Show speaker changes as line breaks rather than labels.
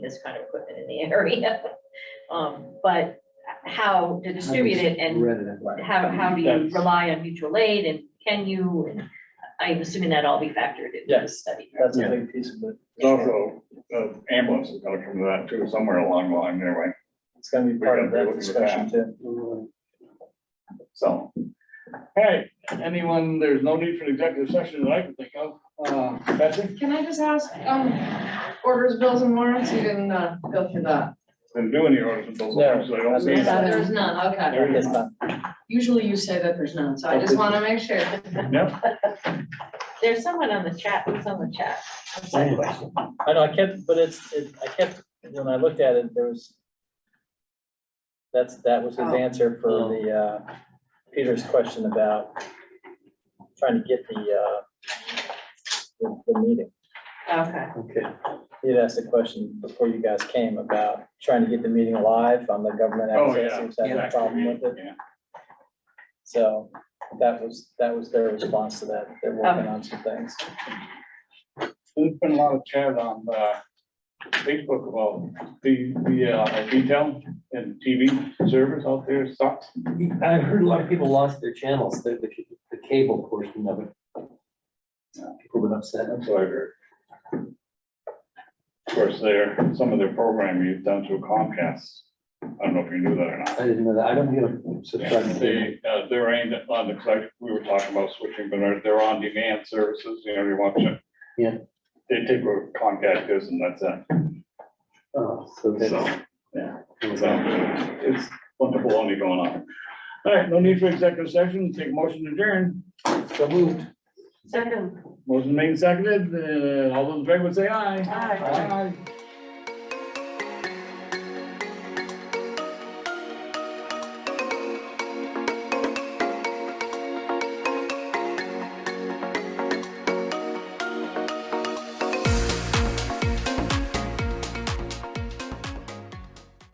this kind of equipment in the area. Um, but how to distribute it and
Read it.
how, how do you
That's-
rely on mutual aid and can you? and I'm assuming that all be factored into the
Yes.
study.
That's
Yeah.
a big piece of it.
It's Also, uh, ambulance is gonna come to that too, somewhere along the line anyway,
It's gonna be
We
part
gotta
of
be
that
looking at
discussion too.
so. All right, anyone, there's no need for an executive session that I can think of. Uh, Betsy,
Can I just ask, um, orders, bills and warrants, you didn't, uh, go through that?
didn't do any orders and bills, so I don't see.
No,
it.
Yeah.
There's none, okay.
There it is. Tom.
Usually you say that there's none, so I just wanna make sure.
No,
There's someone on the chat, who's on the chat? That's my question.
I know, I kept, but it's, it, I kept, when I looked at it, there was. That's, that was his
Oh.
answer for the, uh, Peter's question about trying to get the, uh, the, the meeting.
Okay,
Okay.
He had asked a question before you guys came about trying to get the meeting live on the government
Oh,
access,
yeah.
he was having a problem with it.
Yeah.
So that was, that was their response to that. They're working on some things.
There's been a lot of chat on, uh, Facebook about the, the, uh, detail and TV service out there sucks.
I heard a lot of people lost their channels, the, the, the cable portion of it. uh, People were upset.
That's what I heard. Of course, their, some of their programming is done through Comcast. I don't know if you knew that or not.
I didn't know that. I don't get a subscribe. to cable.
They, uh, they're aimed at, on the, like, we were talking about switching, but they're- they're on demand services, you know, you watch it.
Yeah.
They take what Comcast is and that's it.
Oh, So
So,
that.
so it's wonderful baloney going on. All right, no need for executive session. Take motion to adjourn.
So moved.
second.
Motion made and seconded. Uh, all those in favor say aye.
Aye.
Aye.